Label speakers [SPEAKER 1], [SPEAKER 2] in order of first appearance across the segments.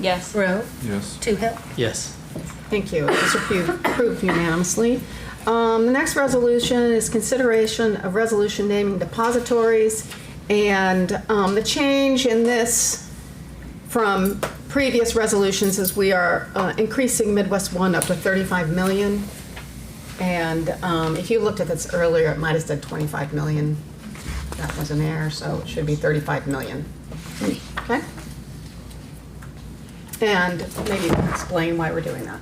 [SPEAKER 1] Yes.
[SPEAKER 2] Rowe?
[SPEAKER 3] Yes.
[SPEAKER 2] Toohill?
[SPEAKER 4] Yes.
[SPEAKER 5] Thank you. It's approved approved unanimously. Um, The next resolution is consideration of resolution naming depositories. And um, the change in this from previous resolutions is we are uh, increasing Midwest One up to 35 million. And um, if you looked at this earlier, it might have said 25 million. That was an error, so it should be 35 million. Okay? And maybe you can explain why we're doing that.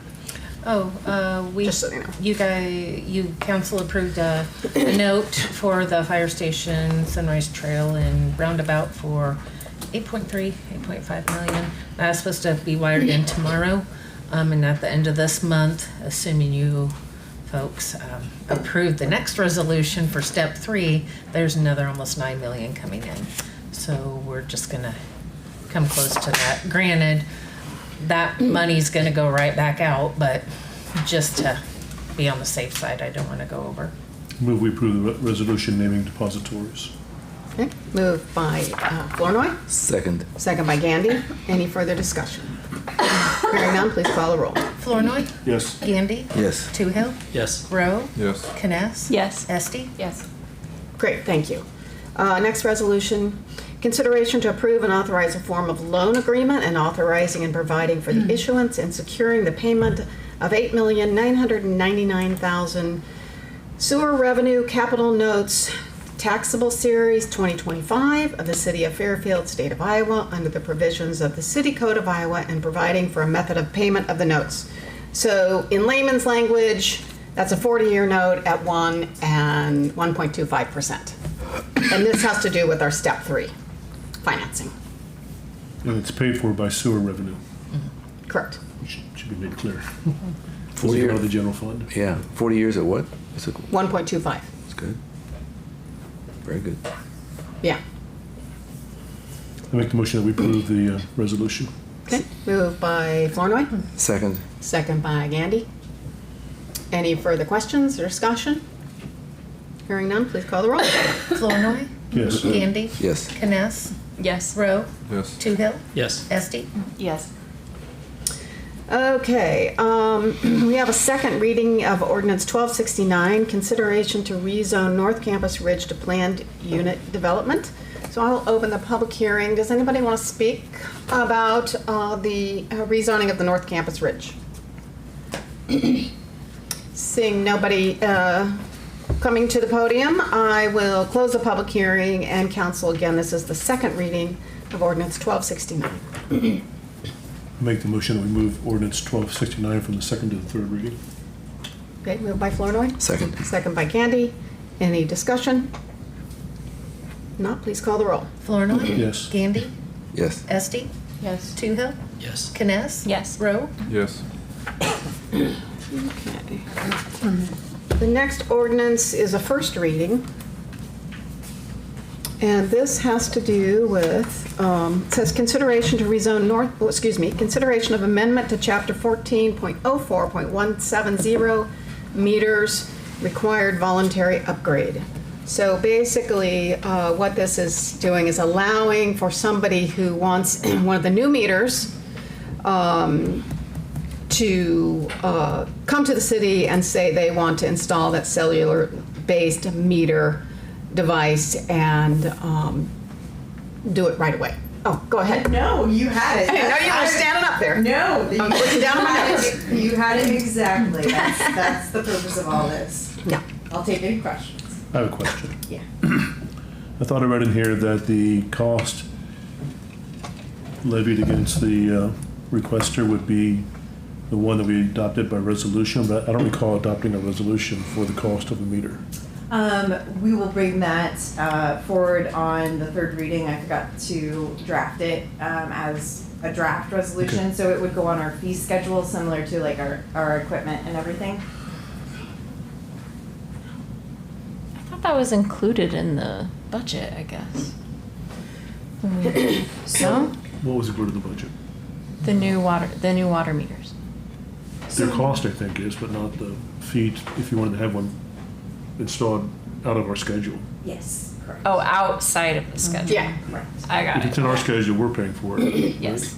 [SPEAKER 1] Oh, uh, we.
[SPEAKER 5] Just so you know.
[SPEAKER 1] guys, you council approved a a note for the fire station, Sunrise Trail and Roundabout for 8.3, 8.5 million. That's supposed to be wired in tomorrow, um, and at the end of this month, assuming you folks, um, approve the next resolution for step three, there's another almost 9 million coming in. So we're just gonna come close to that. Granted, that money's gonna go right back out, but just to be on the safe side, I don't wanna go over.
[SPEAKER 6] Move we approve the re- resolution naming depositories.
[SPEAKER 5] Okay, moved by uh, Flournoy,
[SPEAKER 4] Second.
[SPEAKER 5] second by Gandy. Any further discussion? Hearing none, please call the roll.
[SPEAKER 1] Flournoy,
[SPEAKER 6] Yes.
[SPEAKER 1] Gandy,
[SPEAKER 4] Yes.
[SPEAKER 1] Toohill,
[SPEAKER 4] Yes.
[SPEAKER 1] Rowe,
[SPEAKER 3] Yes.
[SPEAKER 1] Kness.
[SPEAKER 2] Yes.
[SPEAKER 1] Esti.
[SPEAKER 2] Yes.
[SPEAKER 5] Great, thank you. Uh, Next resolution, consideration to approve and authorize a form of loan agreement and authorizing and providing for the issuance and securing the payment of $8,999,000 sewer revenue capital notes taxable series 2025 of the City of Fairfield, State of Iowa, under the provisions of the City Code of Iowa and providing for a method of payment of the notes. So in layman's language, that's a 40-year note at 1 and 1.25%. And this has to do with our step three financing.
[SPEAKER 6] And it's paid for by sewer revenue,
[SPEAKER 5] Correct.
[SPEAKER 6] which should be made clear.
[SPEAKER 4] Four
[SPEAKER 6] Doesn't go to
[SPEAKER 4] years.
[SPEAKER 6] the general fund.
[SPEAKER 4] Yeah. Forty years at what? It's, a,
[SPEAKER 5] 1.25.
[SPEAKER 4] it's good. Very good.
[SPEAKER 5] Yeah.
[SPEAKER 6] I make the motion that we approve the uh, resolution.
[SPEAKER 5] Okay. Moved by Flournoy.
[SPEAKER 4] Second.
[SPEAKER 5] Second by Gandy. Any further questions or discussion? Hearing none, please call the roll.
[SPEAKER 1] Flournoy,
[SPEAKER 6] Yes.
[SPEAKER 1] Gandy.
[SPEAKER 4] Yes.
[SPEAKER 1] Kness,
[SPEAKER 2] Yes.
[SPEAKER 1] Rowe,
[SPEAKER 3] Yes.
[SPEAKER 1] Toohill,
[SPEAKER 4] Yes.
[SPEAKER 1] Esti.
[SPEAKER 2] Yes.
[SPEAKER 5] Okay, um, we have a second reading of ordinance 1269, consideration to rezone North Campus Ridge to planned unit development. So I'll open the public hearing. Does anybody want to speak about uh, the uh, rezoning of the North Campus Ridge? Seeing nobody uh, coming to the podium, I will close the public hearing and council again. This is the second reading of ordinance 1269.
[SPEAKER 6] I make the motion that we move ordinance 1269 from the second to the third reading.
[SPEAKER 5] Okay, moved by Flornoy?
[SPEAKER 4] Second.
[SPEAKER 5] Second by Gandy. Any discussion? Not, please call the roll.
[SPEAKER 1] Flournoy.
[SPEAKER 6] Yes.
[SPEAKER 1] Gandy,
[SPEAKER 4] Yes.
[SPEAKER 1] Esti,
[SPEAKER 2] Yes.
[SPEAKER 1] Toohill,
[SPEAKER 4] Yes.
[SPEAKER 1] Kness.
[SPEAKER 2] Yes.
[SPEAKER 1] Rowe.
[SPEAKER 3] Yes.
[SPEAKER 5] The next ordinance is a first reading. And this has to do with, um, it says consideration to rezone north, oh, excuse me, consideration of amendment to chapter 14.04.170 meters required voluntary upgrade. So basically, uh, what this is doing is allowing for somebody who wants one of the new meters um, to uh, come to the city and say they want to install that cellular-based meter device and um, do it right away. Oh, go ahead.
[SPEAKER 7] No, you had it.
[SPEAKER 5] I didn't know you were standing up there.
[SPEAKER 7] No, you,
[SPEAKER 5] I'm looking down at my
[SPEAKER 7] had
[SPEAKER 5] notes.
[SPEAKER 7] it- you had it exactly. That's, that's the purpose of all this.
[SPEAKER 5] Yeah.
[SPEAKER 7] I'll take any questions.
[SPEAKER 6] I have a question.
[SPEAKER 7] Yeah.
[SPEAKER 6] I thought I read in here that the cost levied against the uh, requester would be the one that we adopted by resolution, but I don't recall adopting a resolution for the cost of a meter.
[SPEAKER 7] Um, we will bring that uh, forward on the third reading. I forgot to draft it um, as a draft resolution, so it would go on our fee schedule, similar to like our, our equipment and everything.
[SPEAKER 2] I thought that was included in the budget, I guess. When we- No?
[SPEAKER 6] What was included in the budget?
[SPEAKER 2] The new water, the new water meters.
[SPEAKER 6] Their cost, I think, is, but not the fee, if you wanted to have one installed out of our schedule.
[SPEAKER 7] Yes, correct.
[SPEAKER 2] Oh, outside of the schedule.
[SPEAKER 5] Yeah.
[SPEAKER 7] Correct.
[SPEAKER 2] I got
[SPEAKER 6] If
[SPEAKER 2] it.
[SPEAKER 6] it's in our schedule, we're paying for it.
[SPEAKER 2] Yes.